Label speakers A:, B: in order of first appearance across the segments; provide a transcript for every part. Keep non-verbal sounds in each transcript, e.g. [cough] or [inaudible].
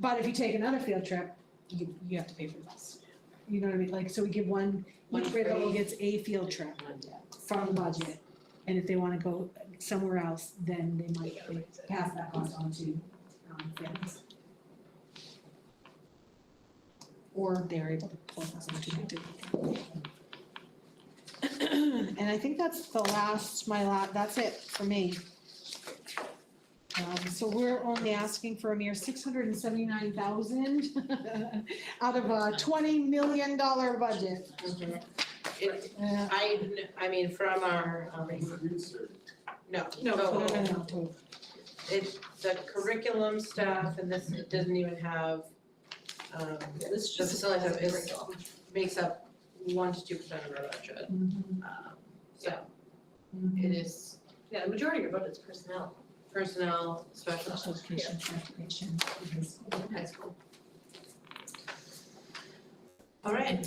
A: But if you take another field trip, you, you have to pay for the bus. You know what I mean? Like, so we give one,
B: One
A: each grade level
B: free.
A: gets a field trip
B: One day.
A: from the budget. And if they wanna go somewhere else, then they might they pass that cost on to, um, families. Or they're able to pull us into it. [clears throat] And I think that's the last, my la, that's it for me. Um, so we're only asking for a mere six hundred and seventy-nine thousand [laughs] out of a twenty million dollar budget.
B: It,
A: Uh,
B: I, kn- I mean, from our, um, no,
A: No,
B: so
A: no, no, no, no.
B: it, the curriculum stuff and this it doesn't even have, um,
C: This
B: the facility stuff is, makes up one to two percent of our budget. Um, So it is
C: Yeah, the majority of your vote is personnel,
B: personnel, special
A: Special education, transportation.
C: high school.
B: All right.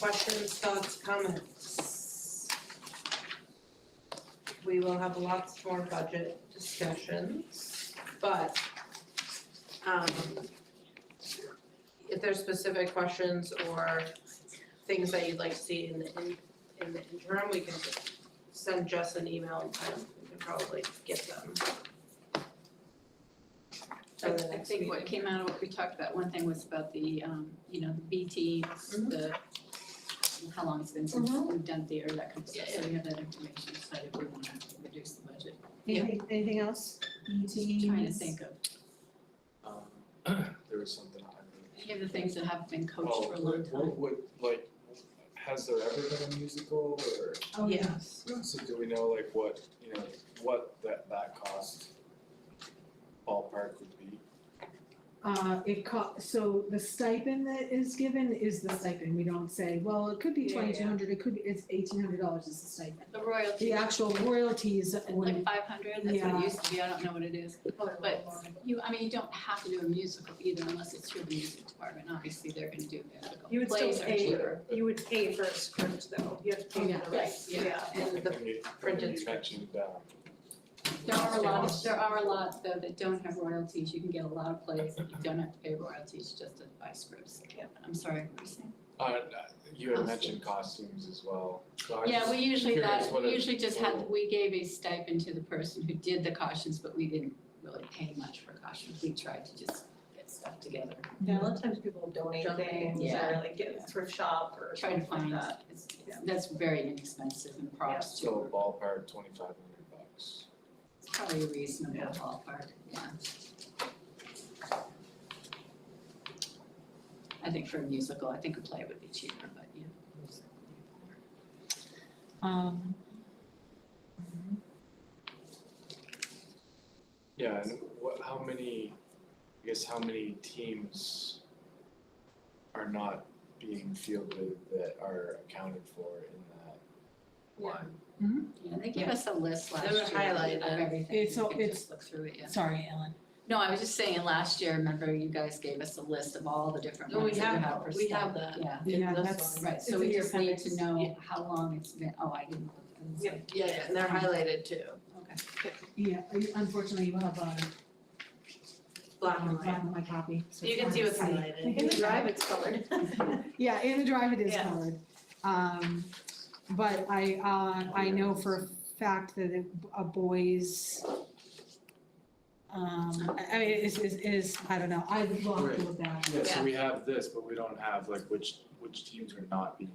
B: Questions, thoughts, comments? We will have lots more budget discussions, but um if there's specific questions or things that you'd like to see in the in in the interim, we can just send Jess an email and kind of- we can probably get them.
D: I
B: for the
D: I
B: next
D: think what
B: meeting.
D: came out of what we talked about, one thing was about the, um, you know, the B teams,
B: Mhm.
D: the, how long it's been since we've done theater, that kind of stuff,
B: Yeah,
D: so we have that information, decided we wanna reduce the budget.
B: Yeah.
A: Anything, anything else? E ET.
D: Trying to think of,
E: Um, [clears throat] there was something I mean.
D: any of the things that have been coached
E: Oh,
D: for a long
E: what-
D: time.
E: What, what, like, has there ever been a musical or,
A: Oh, yeah.
B: Yes.
E: so do we know like what, you know, what that, that cost ballpark would be?
A: Uh, it co- so the stipend that is given is the stipend, we don't say, well, it could be
B: Yeah, yeah.
A: twenty-two hundred, it could be, it's eighteen hundred dollars is the stipend.
D: The royalty,
A: The actual royalties
D: like
A: would,
D: five hundred, that's what
A: Yeah.
D: it used to be, I don't know what it is. But you, I mean, you don't have to do a musical either unless it's your music department, obviously they're gonna do musical.
C: You would still
D: Plays are
C: pay-
D: cheaper.
C: You would pay for a script though, you have to pay for the
D: Right,
C: rights,
D: yeah.
C: yeah.
B: And the
E: And you-
B: printed
E: You
B: script.
E: mentioned, um,
D: There are a lot, there are a lot though that don't have royalties, you can get a lot of plays that you don't have to pay royalties just to buy scripts. I'm sorry, what were you saying?
E: uh, you had
D: Costumes.
E: mentioned costumes as well, so I was
D: Yeah, we usually
E: curious
D: that,
E: what
D: we
E: it-
D: usually just had, we gave a stipend to the person who did the cautions, but we didn't really pay much for cautions, we tried to just get stuff together.
C: Yeah, a lot of times people donate
B: Donate,
C: things or
D: yeah.
C: like get thrift shop or
D: Try to
C: something like
D: find,
C: that.
D: it's, it's- that's very inexpensive and props
E: So
D: to,
E: ballpark twenty-five hundred bucks.
D: it's probably a reasonable
C: Yeah.
D: ballpark, yeah. I think for a musical, I think a play would be cheaper, but yeah.
A: um,
E: Yeah, and what, how many, I guess how many teams are not being fielded that are accounted for in that line?
D: Yeah, they gave us a list last
B: They were
D: year
B: highlighted.
D: of everything, you
A: It's all-
D: could
A: it's-
D: just look through it, yeah.
A: sorry, Ellen.
D: No, I was just saying, last year, remember you guys gave us a list of all the different
B: No, we
D: ones that you
B: have-
D: have for
B: we have
D: staff.
B: that.
D: Yeah,
B: in
A: Yeah,
B: this
A: that's,
B: one.
D: right,
A: It's
D: so we
A: in your
D: just need to
A: appendix.
D: know how long it's been, oh, I didn't look, I was
C: Yeah.
D: like,
B: Yeah, yeah, and they're highlighted too,
D: okay.
A: yeah, uh, unfortunately, you have uh, a
B: black and white.
A: black and white copy, so
B: You
A: it's
B: can
A: hard
B: see
A: to
B: what's highlighted.
C: In the drive, it's colored.
A: Yeah, in the drive it is
C: Yeah.
A: colored. Um, but I, uh, I know for a fact that it- a boy's, um, I, I mean, it is, it is, I don't know, I would love to look that.
E: Yeah,
B: Yeah.
E: so we have this, but we don't have like which, which teams are not being,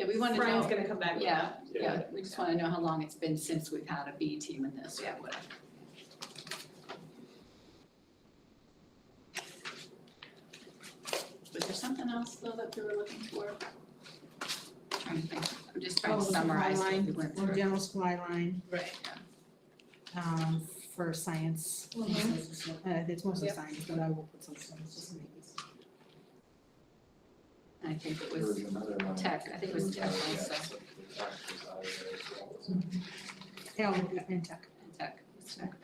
D: Yeah, we wanna
C: Brian's
D: know,
C: gonna come back with that.
D: yeah, yeah, we just wanna know how long it's been since we've had a B team in this or
C: Yeah.
D: whatever. Was there something else though that we were looking for? Trying to think, I'm just trying to
A: Oh, the
D: summarize what
A: line,
D: we went
A: the
D: through.
A: general supply line,
B: Right.
A: um, for science.
B: Mm-hmm.
A: Uh, it's mostly science, but I will put some science, just to make it.
D: I think it
E: there was
D: was,
E: another line.
D: tech, I think it was
E: There
D: tech
E: yeah,
D: also.
E: so the tech was out of there as well.
A: Yeah, I'll look at- and tech.
D: tech, it's tech.
E: um,